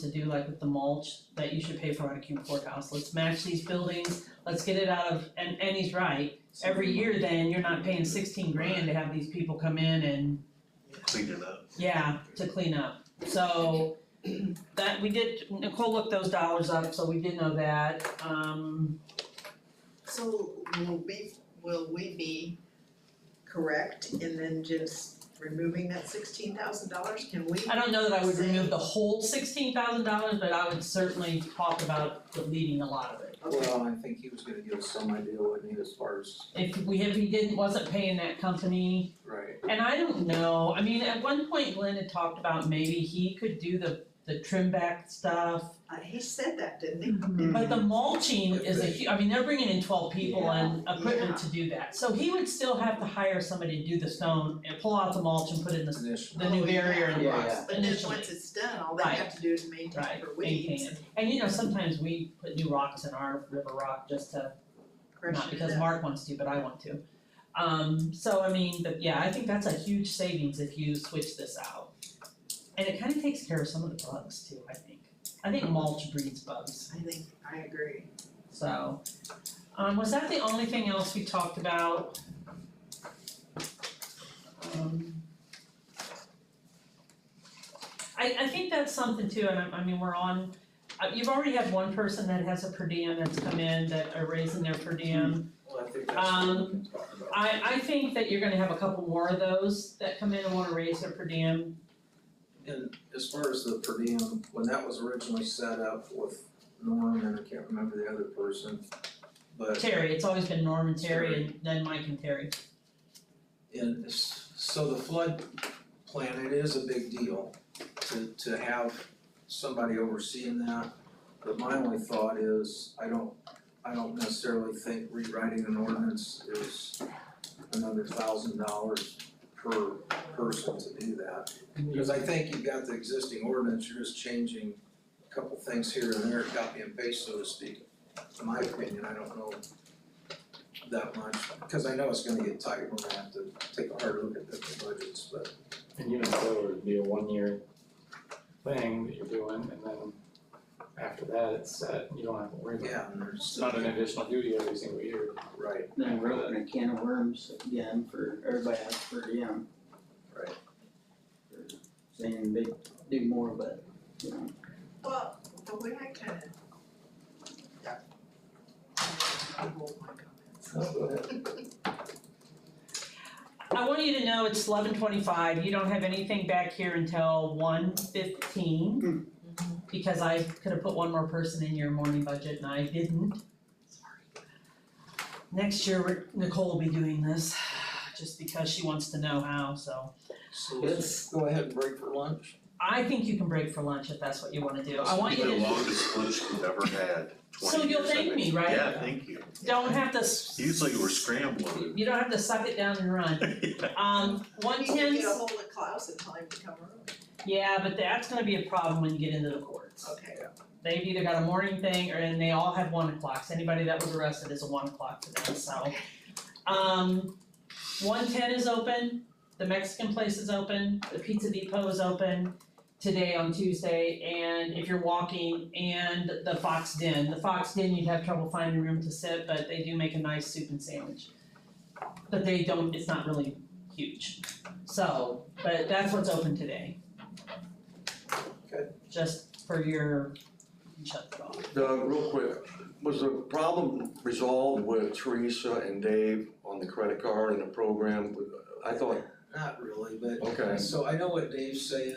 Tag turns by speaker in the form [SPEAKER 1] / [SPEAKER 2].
[SPEAKER 1] to do like with the mulch that you should pay for on a cube courthouse, let's match these buildings, let's get it out of, and and he's right. Every year then, you're not paying sixteen grand to have these people come in and,
[SPEAKER 2] clean it up.
[SPEAKER 1] yeah, to clean up. So that, we did, Nicole looked those dollars up, so we did know that, um,
[SPEAKER 3] So will we, will we be correct in then just removing that sixteen thousand dollars? Can we?
[SPEAKER 1] I don't know that I would remove the whole sixteen thousand dollars, but I would certainly talk about deleting a lot of it.
[SPEAKER 3] Okay,
[SPEAKER 4] Well, I think he was gonna give us some idea what he as far as,
[SPEAKER 1] If we, if he didn't, wasn't paying that company,
[SPEAKER 4] right,
[SPEAKER 1] And I don't know, I mean, at one point Glenn had talked about maybe he could do the the trim back stuff.
[SPEAKER 3] uh, he said that, didn't he?
[SPEAKER 1] But the mulching is a hu- I mean, they're bringing in twelve people and equipment to do that. So he would still have to hire somebody to do the stone and pull out the mulch and put in the
[SPEAKER 4] initially.
[SPEAKER 1] the new barrier and
[SPEAKER 4] Yeah,
[SPEAKER 1] rocks
[SPEAKER 4] yeah.
[SPEAKER 3] But then once it's done, all they have to do is maintain
[SPEAKER 1] Right,
[SPEAKER 3] for
[SPEAKER 1] maintain
[SPEAKER 3] weeds
[SPEAKER 1] it.
[SPEAKER 3] and
[SPEAKER 1] And you know, sometimes we put new rocks in our river rock just to,
[SPEAKER 3] crush
[SPEAKER 1] not
[SPEAKER 3] it
[SPEAKER 1] because
[SPEAKER 3] up.
[SPEAKER 1] Mark wants to, but I want to. Um, so I mean, but yeah, I think that's a huge savings if you switch this out. And it kind of takes care of some of the bugs too, I think. I think mulch breeds bugs,
[SPEAKER 3] I think, I agree.
[SPEAKER 1] so. Um, was that the only thing else we talked about? Um. I, I think that's something too, and I, I mean, we're on, uh, you've already had one person that has a per diem that's come in that are raising their per diem.
[SPEAKER 4] Well, I think that's what we can talk about.
[SPEAKER 1] I I think that you're gonna have a couple more of those that come in and wanna raise their per diem.
[SPEAKER 4] And as far as the per diem, when that was originally set up with Norm and I can't remember the other person, but
[SPEAKER 1] Terry, it's always been Norm and Terry and then Mike and Terry.
[SPEAKER 4] And s- so the flood plan, it is a big deal to to have somebody overseeing that. But my only thought is, I don't, I don't necessarily think rewriting an ordinance is another thousand dollars per person to do that. Because I think you've got the existing ordinance, you're just changing a couple things here and there, copy and paste, so to speak. In my opinion, I don't know that much, because I know it's gonna get tight, we're gonna have to take a hard look at different budgets, but
[SPEAKER 5] And you know, so it would be a one-year thing that you're doing, and then after that, it's set, you don't have to worry about it.
[SPEAKER 4] yeah, and
[SPEAKER 5] It's
[SPEAKER 4] there's.
[SPEAKER 5] not an additional duty every single year.
[SPEAKER 4] Right,
[SPEAKER 6] Then we're opening a can of worms again for, everybody has per diem.
[SPEAKER 4] Right.
[SPEAKER 6] Saying they do more, but, you know,
[SPEAKER 3] Well, the way I kinda. Yeah. I hold my comments.
[SPEAKER 1] I want you to know it's eleven twenty-five, you don't have anything back here until one fifteen. Because I could have put one more person in your morning budget and I didn't. Sorry. Next year, we're- Nicole will be doing this, just because she wants to know how, so.
[SPEAKER 4] so let's go ahead and break for lunch.
[SPEAKER 1] I think you can break for lunch if that's what you wanna do, I want you to.
[SPEAKER 2] The longest lunch we've ever had,
[SPEAKER 1] So
[SPEAKER 2] twenty years,
[SPEAKER 1] you'll
[SPEAKER 2] I
[SPEAKER 1] thank
[SPEAKER 2] think.
[SPEAKER 1] me, right?
[SPEAKER 2] Yeah, thank you.
[SPEAKER 1] Don't have to. s-
[SPEAKER 2] Usually we're scrambling.
[SPEAKER 1] You don't have to suck it down and run. Um, one
[SPEAKER 3] You can
[SPEAKER 1] ten,
[SPEAKER 3] get a hold of Klaus and tell him to come early.
[SPEAKER 1] yeah, but that's gonna be a problem when you get into the courts.
[SPEAKER 3] Okay,
[SPEAKER 1] They've either got a morning thing or, and they all have one o'clocks. Anybody that was arrested is a one o'clock to them, so. Um, one ten is open, the Mexican place is open, the Pizza Depot is open today on Tuesday, and if you're walking, and the Fox Den. The Fox Den, you'd have trouble finding room to sit, but they do make a nice soup and sandwich. But they don't, it's not really huge. So, but that's what's open today.
[SPEAKER 4] Okay.
[SPEAKER 1] Just for your shut it off.
[SPEAKER 7] Uh, real quick, was the problem resolved with Teresa and Dave on the credit card and the program? I thought,
[SPEAKER 4] Not really, but,
[SPEAKER 7] okay.
[SPEAKER 4] so I know what Dave's saying,